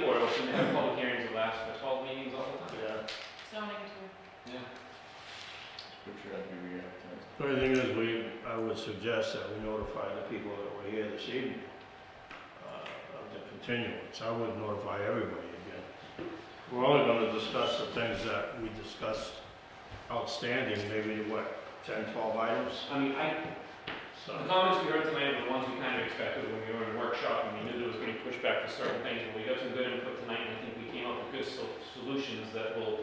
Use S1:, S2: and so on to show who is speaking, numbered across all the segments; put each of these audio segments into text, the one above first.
S1: the public hearings will last for twelve meetings all the time.
S2: Yeah.
S3: zoning too.
S1: Yeah.
S4: Good job, you re-advertised.
S2: The only thing is, we, I would suggest that we notify the people that were here this evening uh, of the continuance. I would notify everybody again. We're only gonna discuss the things that we discussed outstanding, maybe what, 10, 12 items?
S1: I mean, I, the
S2: So,
S1: comments we heard tonight were the ones we kind of expected when we were in workshop, and we knew there was gonna be pushback for certain things, but we got some good input tonight, and I think we came up with good sol- solutions that will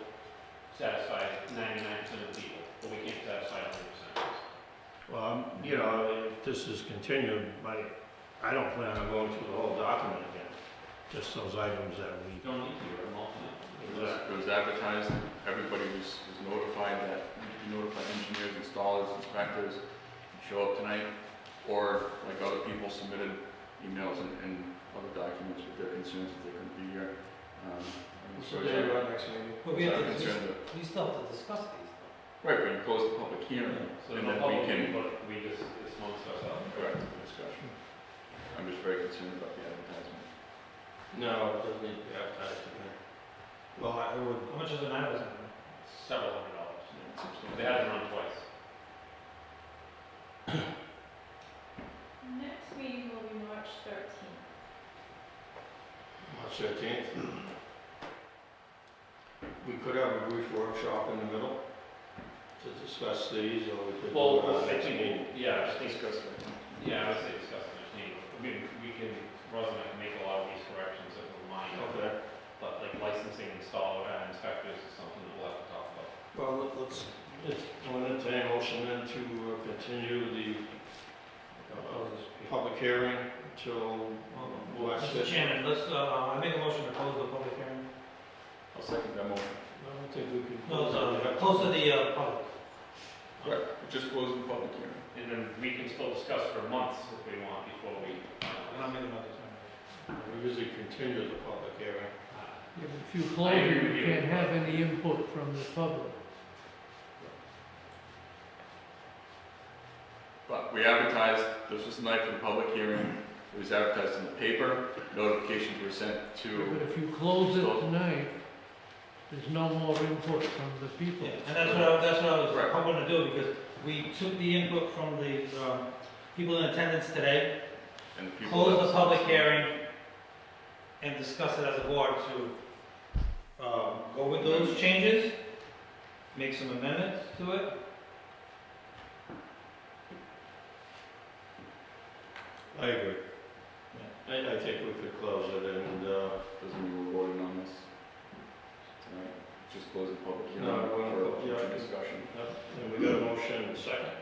S1: satisfy ninety-nine percent of the people, but we can't satisfy hundred percent.
S2: well, I'm- you know, if this is continued, my, I don't plan on going through the whole document again. Just those items that
S1: You
S2: we,
S1: don't need to, you're an alternate.
S4: It was, it was advertised, everybody was, was notified that, you notify engineers, installers, inspectors, show up tonight, or like other people submitted emails and, and other documents with their concerns that they couldn't be here. Um, and so it's-
S2: next meeting?
S5: But we have
S4: it's our
S5: to, dis-
S4: concern that-
S5: we still have to discuss these.
S4: Right, but you close the public hearing,
S1: So
S4: and
S1: no
S4: then we
S1: public
S4: can,
S1: input, we just, it's amongst ourselves.
S4: correct the discussion.
S5: Hmm.
S4: I'm just very concerned about the advertisement.
S2: No, it doesn't need to be advertised again. Well, I would,
S5: How much is an hour?
S1: Several hundred dollars.
S4: Yeah, it's substantial.
S1: They had it run twice.
S3: Next meeting will be March thirteenth.
S2: March thirteenth. We could have a brief workshop in the middle to discuss these, or we could. do it
S1: Well,
S2: on
S1: I
S2: next meeting.
S1: think, yeah, I think,
S4: Discuss it.
S1: yeah, I would say discuss it, there's need, I mean, we can, Ross and I can make a lot of these corrections that were mine,
S2: Okay,
S1: but like licensing, installer, and inspectors is something that we'll have to talk about.
S2: well, let- let's, let's, I'll entertain a motion then to uh, continue the uh, public hearing until last
S5: Mr. Chairman, let's, uh, I make a motion to close the public hearing.
S4: I'll second that motion.
S2: I don't think we can.
S5: No, it's, uh, close to the, uh, public.
S4: Right, just close the public hearing.
S1: And then we can still discuss for months if we want before we. uh,
S5: I'm not making another determination.
S2: We usually continue the public hearing.
S6: If you
S1: uh, I
S6: close
S1: agree
S6: it,
S1: with
S6: you
S1: you.
S6: can't have any input from the public.
S4: But we advertised, this was the night for the public hearing, it was advertised in the paper, notifications were sent to,
S6: But if you close it
S4: Close.
S6: tonight, there's no more input from the people.
S5: Yeah, and that's what I, that's what I was
S4: Right.
S5: hoping to do, because we took the input from the, um, people in attendance today,
S4: and the people.
S5: close the public hearing, and discuss it as a board to, um, go with those changes, make some amendments to it.
S2: I agree. I, I think we could close it and, uh,
S4: Doesn't mean we're voting on this tonight, just close the public hearing
S2: No, we're not vote-
S4: for
S2: yeah, I
S4: future
S2: can-
S4: discussion.
S2: And we got a motion and a second.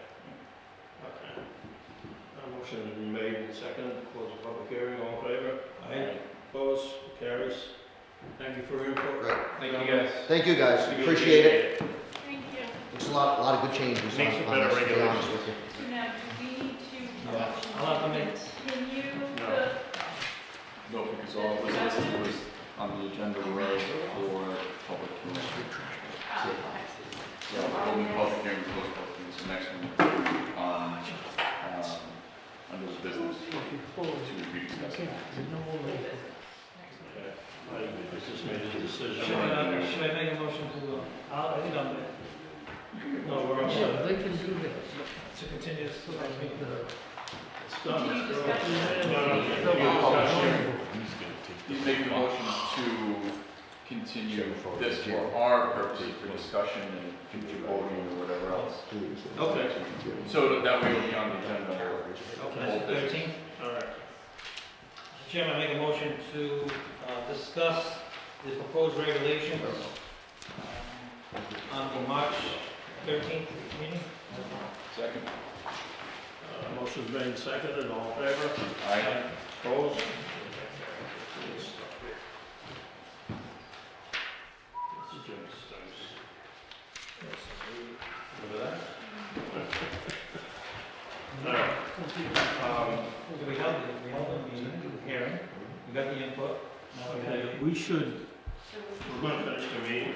S2: Okay. A motion has been made and seconded, to close the public hearing, all in favor?
S5: Aye.
S2: Opposed, carries. Thank you for your input.
S1: Thank you guys.
S7: Thank you guys, appreciate it.
S3: Thank you.
S7: It's a lot, a lot of good changes.
S2: Makes
S7: on-
S2: for
S7: on
S2: better
S7: this, to be honest with
S2: regulations.
S7: you.
S3: Now, do we need to?
S5: Yeah, I'll have to make-
S3: Continue
S2: No.
S3: the
S4: No, because all of this was- was on the agenda was for public hearing.
S3: Oh,
S4: Yeah, we're holding the public hearing, close the public hearing, so next one, um, um, under the business,
S6: If you close
S4: to
S6: it,
S4: be
S6: you
S4: discussed.
S6: can't, there's no more
S3: okay.
S6: input.
S2: Okay. I just made a decision.
S5: Should I, uh, should I make a motion to, uh, I'll- I think I'm,
S2: No, we're all
S6: Yeah,
S2: set.
S6: they can do that.
S5: to continue this, to the next meeting.
S6: The-
S2: It's
S3: Do
S2: done.
S3: you discuss it?
S2: No, no,
S6: the-
S2: no, you discuss it.
S4: He's making a motion to continue this for our purposes for discussion and future voting or whatever else.
S2: Okay,
S4: So that way it'll be on the agenda.
S5: That's the thirteenth.
S2: all right.
S5: Mr. Chairman, I make a motion to uh, discuss the proposed regulations um, on the March thirteenth meeting.
S4: Second.
S2: Uh, Motion's made and seconded, all in favor?
S4: Aye.
S2: Opposed? Remember that? Alright.
S5: So we held the, we held the meeting, hearing, we got the input. Now we gotta-
S2: Okay, we should,
S3: So we-
S2: we're gonna finish the meeting.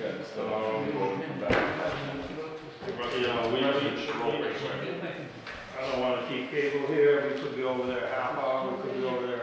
S4: Yeah, so um, we'll come back.
S2: You know, we, uh, we, I don't wanna keep cable here, we could be over there half hour, we could be over there